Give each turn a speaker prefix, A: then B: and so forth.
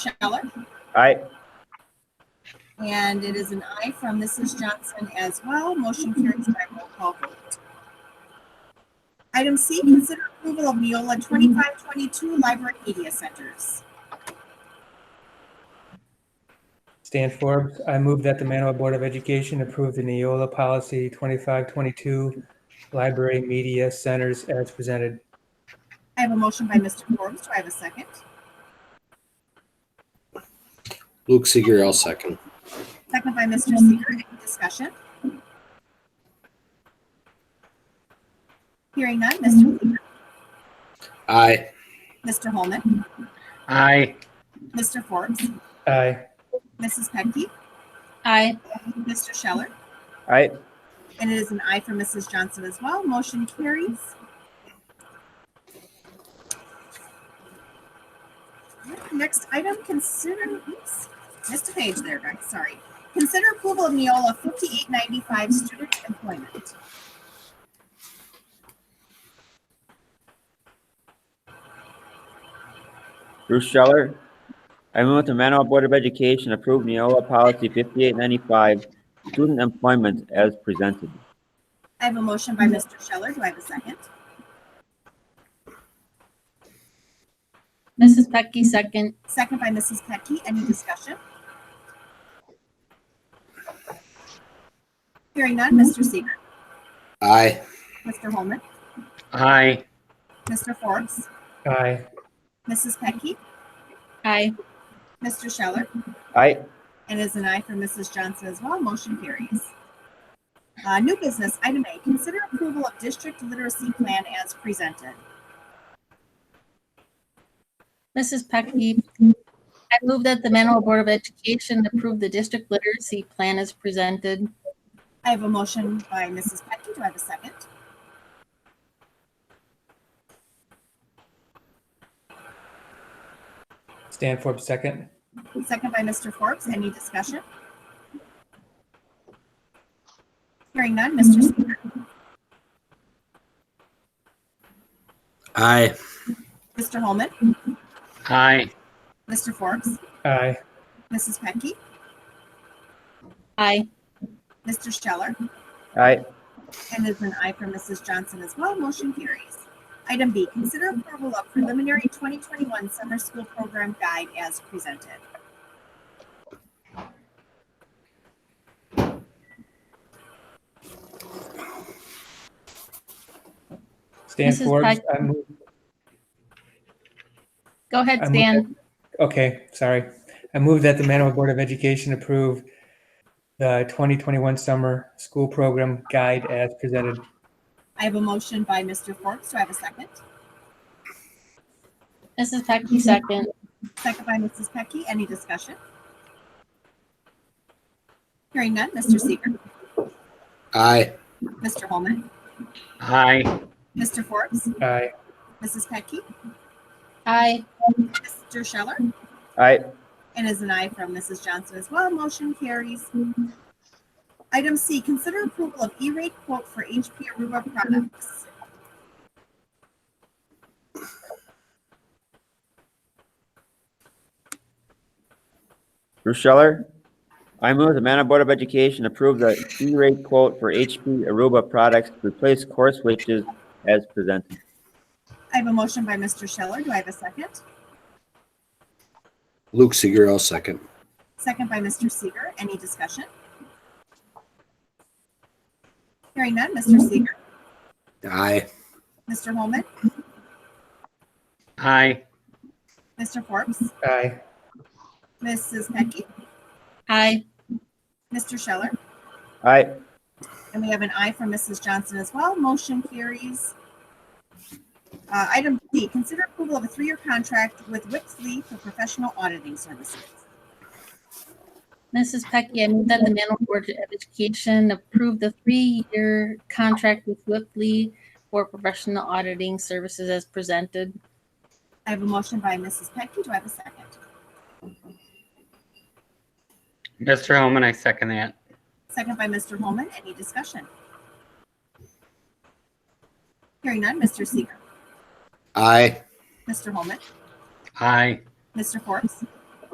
A: Scheller,
B: Aye.
A: and it is an aye from Mrs. Johnson as well. Motion carries by roll call vote. Item C, consider approval of Neola 2522 Library Media Centers.
C: Stan Forbes, I move that the Manawha Board of Education approve the Neola Policy 2522 Library Media Centers as presented.
A: I have a motion by Mr. Forbes. Do I have a second?
D: Luke Seeger, I'll second.
A: Second by Mr. Seeger. Any discussion? Hearing none, Mr. Seeger,
D: Aye.
A: Mr. Holman,
E: Aye.
A: Mr. Forbes,
C: Aye.
A: Mrs. Petke,
F: aye,
A: Mr. Scheller,
B: Aye.
A: And it is an aye for Mrs. Johnson as well. Motion carries. Next item, consider, oops, missed a page there, Greg, sorry. Consider approval of Neola fifty-eight ninety-five student employment.
B: Bruce Scheller. I move that the Manawha Board of Education approve Neola Policy 5895, Student Employment as presented.
A: I have a motion by Mr. Scheller. Do I have a second?
F: Mrs. Pecky, second,
A: Second by Mrs. Petke. Any discussion? Hearing none, Mr. Seeger,
D: Aye.
A: Mr. Holman,
E: Aye.
A: Mr. Forbes,
C: Aye.
A: Mrs. Petke,
F: aye,
A: Mr. Scheller,
B: Aye.
A: and is an aye for Mrs. Johnson as well. Motion carries. Uh, new business, item A, consider approval of district literacy plan as presented.
F: Mrs. Pecky. I move that the Manawha Board of Education approve the district literacy plan as presented.
A: I have a motion by Mrs. Petke. Do I have a second?
C: Stan Forbes, second.
A: Second by Mr. Forbes. Any discussion? Hearing none, Mr. Seeger,
D: Aye.
A: Mr. Holman,
E: Aye.
A: Mr. Forbes,
C: Aye.
A: Mrs. Petke,
F: Aye,
A: Mr. Scheller,
B: Aye.
A: And is an aye for Mrs. Johnson as well. Motion carries. Item B, consider approval of preliminary 2021 summer school program guide as presented.
C: Stan
F: Mrs.
C: Forbes,
F: Pike.
C: I move,
F: go ahead,
C: I move
F: Stan.
C: okay, sorry. I move that the Manawha Board of Education approve the 2021 Summer School Program Guide as presented.
A: I have a motion by Mr. Forbes. Do I have a second?
F: Mrs. Pecky, second,
A: Second by Mrs. Pecky. Any discussion? Hearing none, Mr. Seeger,
D: Aye.
A: Mr. Holman,
E: Aye.
A: Mr. Forbes,
C: Aye.
A: Mrs. Pecky,
F: aye,
A: Mr. Scheller,
B: Aye.
A: And is an aye from Mrs. Johnson as well. Motion carries. Item C, consider approval of E-rate quote for HP Aruba products.
B: Bruce Scheller. I move that the Manawha Board of Education approve the E-rate quote for HP Aruba products to replace core switches as presented.
A: I have a motion by Mr. Scheller. Do I have a second?
D: Luke Seeger, I'll second.
A: Second by Mr. Seeger. Any discussion? Hearing none, Mr. Seeger,
D: Aye.
A: Mr. Holman,
E: Aye.
A: Mr. Forbes,
C: Aye.
A: Mrs. Petke,
F: aye,
A: Mr. Scheller,
B: Aye.
A: and we have an aye from Mrs. Johnson as well. Motion carries. Uh, item D, consider approval of a three-year contract with Wixley for professional auditing services.
F: Mrs. Pecky. I move that the Manawha Board of Education approve the three-year contract with Whipley for professional auditing services as presented.
A: I have a motion by Mrs. Petke. Do I have a second?
E: Mr. Holman, I second that.
A: Second by Mr. Holman. Any discussion? Hearing none, Mr. Seeger,
D: Aye.
A: Mr. Holman,
E: Aye.
A: Mr. Forbes,